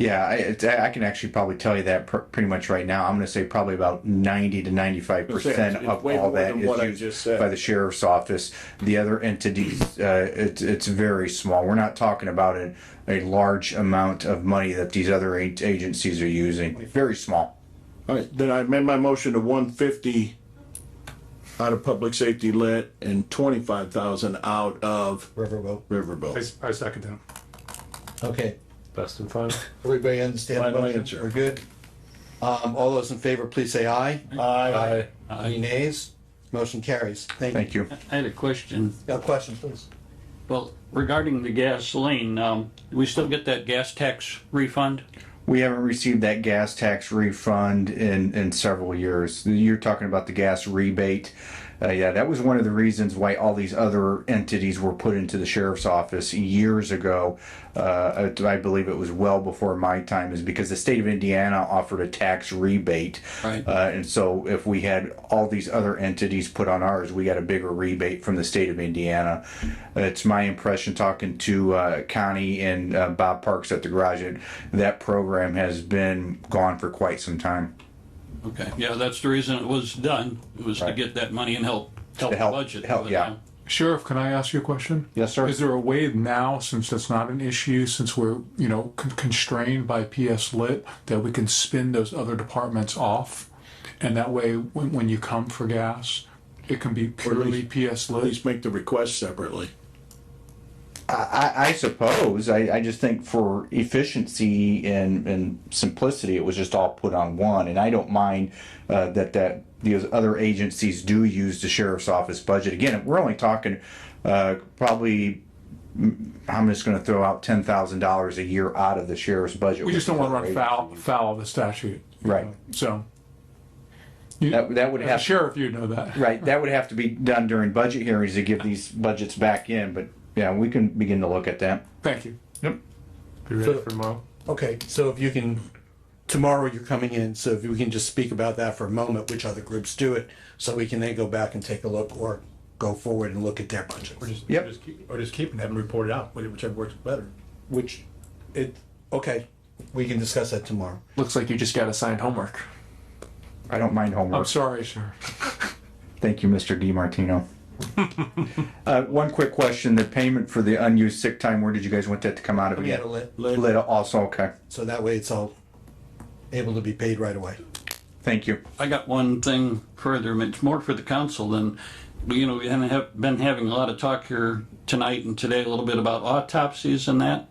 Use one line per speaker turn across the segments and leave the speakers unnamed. Yeah, I, it's, I can actually probably tell you that pr- pretty much right now. I'm going to say probably about 90 to 95 percent
It's- it's
of
way
all
more
that
than
is
what I
used
just said.
by the sheriff's office. The other entities, uh, it's it's very small. We're not talking about a, a large amount of money that these other a- agencies are using. Very small.
All right, then I amend my motion to one fifty out of public safety lit and twenty-five thousand out of
Riverboat.
Riverboat.
I, I second that.
Okay,
Best and final.
everybody understand? the
Final
motion?
answer.
We're good? Um, all those in favor, please say aye.
I,
Any nays? Motion carries. Thank you.
Thank you.
I had a question.
Got a question, please?
Well, regarding the gasoline, um, do we still get that gas tax refund?
We haven't received that gas tax refund in, in several years. You're talking about the gas rebate. Uh, yeah, that was one of the reasons why all these other entities were put into the sheriff's office years ago. Uh, I I believe it was well before my time, is because the state of Indiana offered a tax rebate.
Right.
Uh, and so if we had all these other entities put on ours, we got a bigger rebate from the state of Indiana. It's my impression talking to uh, Connie and uh, Bob Parks at the garage that that program has been gone for quite some time.
Okay, yeah, that's the reason it was done, It was to
Right.
get that money and help, help
To
the
help-
budget.
help,
but,
yeah.
um,
Sheriff, can I ask you a question?
Yes, sir.
Is there a way now, since that's not an issue, since we're, you know, con- constrained by PS Lit, that we can spin those other departments off? And that way, when, when you come for gas, it can be purely PS
At
Lit?
least make the request separately.
I, I suppose. I, I just think for efficiency and, and simplicity, it was just all put on one. And I don't mind uh, that that these other agencies do use the sheriff's office budget. Again, we're only talking uh, probably. mm, I'm just going to throw out ten thousand dollars a year out of the sheriff's budget.
We just don't want to run foul, foul of the statute. you
Right.
know, So. You-
That, that would
as a
have
Sheriff, you know that.
right. That would have to be done during budget hearings to give these budgets back in. But yeah, we can begin to look at that.
Thank you.
Be ready for tomorrow.
Okay, so if you can, tomorrow you're coming in, so if we can just speak about that for a moment, which other groups do it, so we can then go back and take a look or go forward and look at their budget.
Yep.
Just keep, or just keep and have them report it out, whichever works better.
Which, it, okay, we can discuss that tomorrow.
Looks like you just got assigned homework.
I don't mind homework.
I'm sorry, sir.
Thank you, Mr. DiMartino. Uh, one quick question, the payment for the unused sick time, where did you guys want that to come out of
Coming
again?
out of lit.
Lit also, okay,
So that way it's all able to be paid right away.
thank you.
I got one thing further, and it's more for the council than, you know, we haven't have, been having a lot of talk here tonight and today, a little bit about autopsies and that.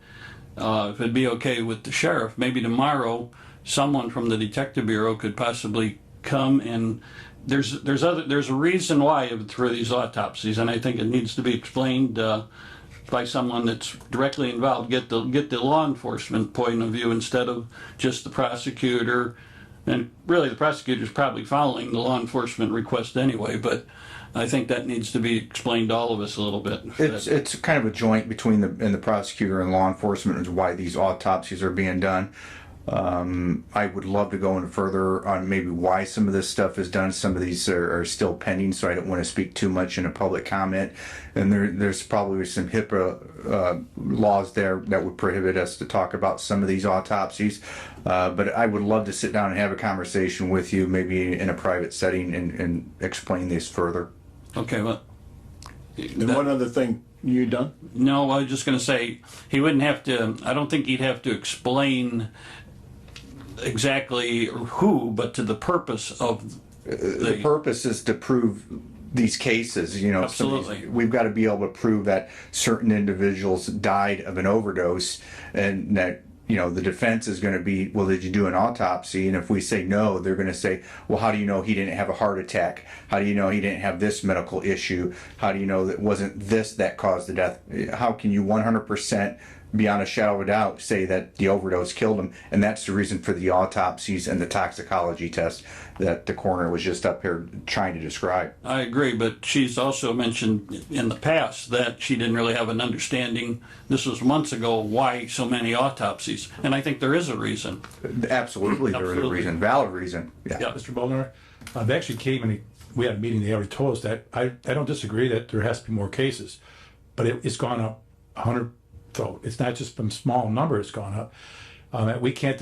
Uh, if it'd be okay with the sheriff, maybe tomorrow, someone from the detective bureau could possibly come and, there's, there's other, there's a reason why through these autopsies, and I think it needs to be explained, uh, by someone that's directly involved, get the, get the law enforcement point of view instead of just the prosecutor. And really, the prosecutor's probably following the law enforcement request anyway, but I think that needs to be explained to all of us a little bit.
It's, it's kind of a joint between the, and the prosecutor and law enforcement is why these autopsies are being done. Um, I would love to go in further on maybe why some of this stuff is done. Some of these are, are still pending, so I don't want to speak too much in a public comment. And there, there's probably some HIPAA uh, laws there that would prohibit us to talk about some of these autopsies. Uh, but I would love to sit down and have a conversation with you, maybe in a private setting, and, and explain this further.
Okay, well,
And one other thing, you done?
No, I was just gonna say, he wouldn't have to, I don't think he'd have to explain exactly who, but to the purpose of
the
the,
purpose is to prove these cases, you know. some of these-
Absolutely.
We've got to be able to prove that certain individuals died of an overdose and that, you know, the defense is going to be, well, did you do an autopsy? And if we say no, they're going to say, well, how do you know he didn't have a heart attack? How do you know he didn't have this medical issue? How do you know that wasn't this that caused the death? How can you 100% beyond a shadow of a doubt say that the overdose killed him and that's the reason for the autopsies and the toxicology test that the coroner was just up here trying to describe
I agree, but she's also mentioned in the past that she didn't really have an understanding, this was months ago, why so many autopsies, and I think there is a reason.
absolutely there is a
Absolutely.
reason valid reason yeah
Mr. Bolnar, uh, they actually came and they- we had a meeting, they already told us that. I, I don't disagree that there has to be more cases, but it, it's gone up a hundred, so it's not just from small number, it's gone up. um, that we can't